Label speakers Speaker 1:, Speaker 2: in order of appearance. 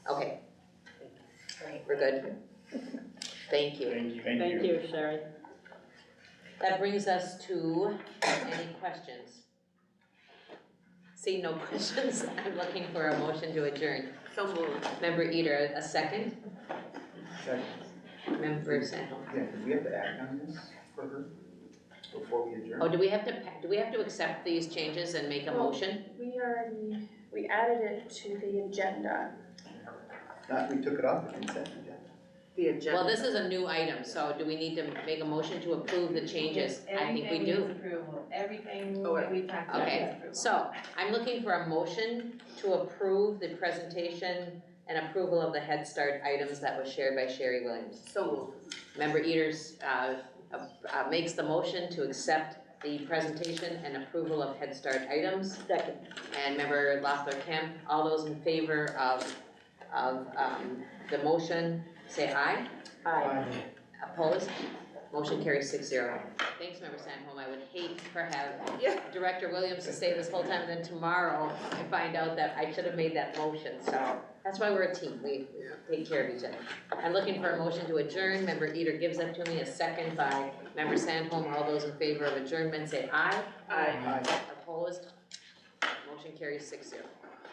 Speaker 1: we're good. Thank you.
Speaker 2: Thank you.
Speaker 3: Thank you, Sherry.
Speaker 1: That brings us to any questions? Seeing no questions, I'm looking for a motion to adjourn. So moved. Member Eater, a second?
Speaker 4: Second.
Speaker 1: Member Sandholm.
Speaker 4: Yeah, do we have to act on this for her before we adjourn?
Speaker 1: Oh, do we have to, pa- do we have to accept these changes and make a
Speaker 5: Well-
Speaker 1: motion?
Speaker 5: We already, we added it to the agenda.
Speaker 4: Not, we took it off the consent agenda.
Speaker 6: The agenda.
Speaker 1: Well, this is a new item, so do we need to make a motion to approve the changes? I think we
Speaker 7: Everything needs
Speaker 1: do.
Speaker 7: approval, everything
Speaker 6: Oh,
Speaker 7: that we talked about
Speaker 1: okay.
Speaker 7: needs approval.
Speaker 1: So, I'm looking for a motion to approve the presentation and approval of the Head Start items that was shared by Sherry Williams.
Speaker 6: So moved.
Speaker 1: Member Eaters, uh, uh, makes the motion to accept the presentation and approval of Head Start items.
Speaker 3: Second.
Speaker 1: And member Loeffler Kemp, all those in favor of, of, um, the motion, say aye.
Speaker 3: Aye.
Speaker 1: Opposed? Motion carries six zero. Thanks, member Sandholm, I would hate for have
Speaker 6: Yeah.
Speaker 1: Director Williams to stay this whole time, and then tomorrow I find out that I should have made that motion, so that's why we're a team, we we take care of each other. I'm looking for a motion to adjourn, member Eater gives that to me, a second by member Sandholm, all those in favor of adjournment say aye.
Speaker 6: Aye.
Speaker 4: Aye.
Speaker 1: Opposed? Motion carries six zero.